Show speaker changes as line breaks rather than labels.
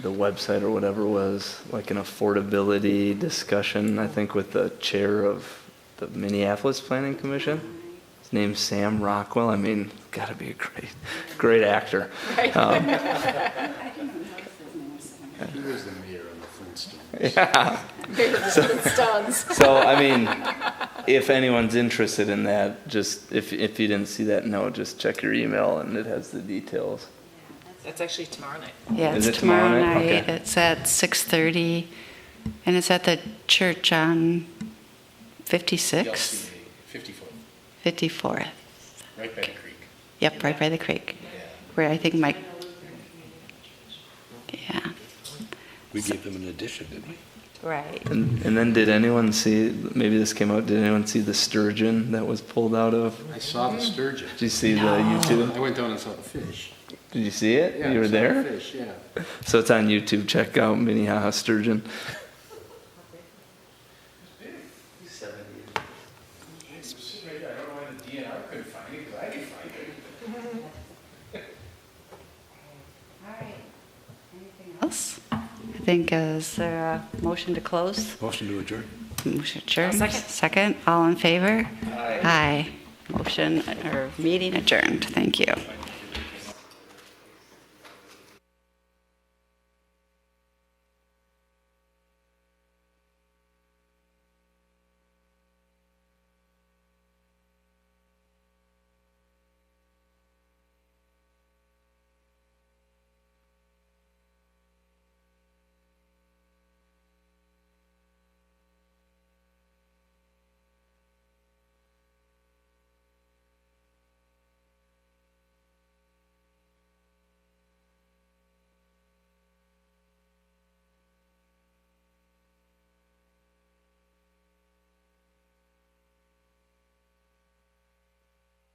the website or whatever was like an affordability discussion, I think, with the chair of the Minneapolis Planning Commission. His name's Sam Rockwell. I mean, gotta be a great, great actor. Um,
I didn't even notice his name was Sam.
He was the mayor of the Flintstones.
yeah.
They were Flintstones.
So, I mean, if anyone's interested in that, just if, if you didn't see that note, just check your email and it has the details.
That's actually tomorrow night.
Yeah,
Is
it's
it tomorrow
tomorrow
night?
night.
Okay.
It's at 6:30, and it's at the church on 56,
50-foot,
54th.
right by the creek.
Yep, right by the creek, where I think Mike, yeah.
We gave them an addition, didn't we?
Right.
And, and then did anyone see, maybe this came out, did anyone see the sturgeon that was pulled out of?
I saw the sturgeon.
Did you see the YouTube?
I went down and saw the fish.
Did you see it?
Yeah, I
you were
saw the
there?
Fish, yeah.
So it's on YouTube. Check out Minnehaha Sturgeon.
Else? I think, uh, is there a motion to close?
Motion to adjourn.
Motion adjourned.
Second.
Second, all in favor? Aye. Motion or meeting adjourned. Thank you.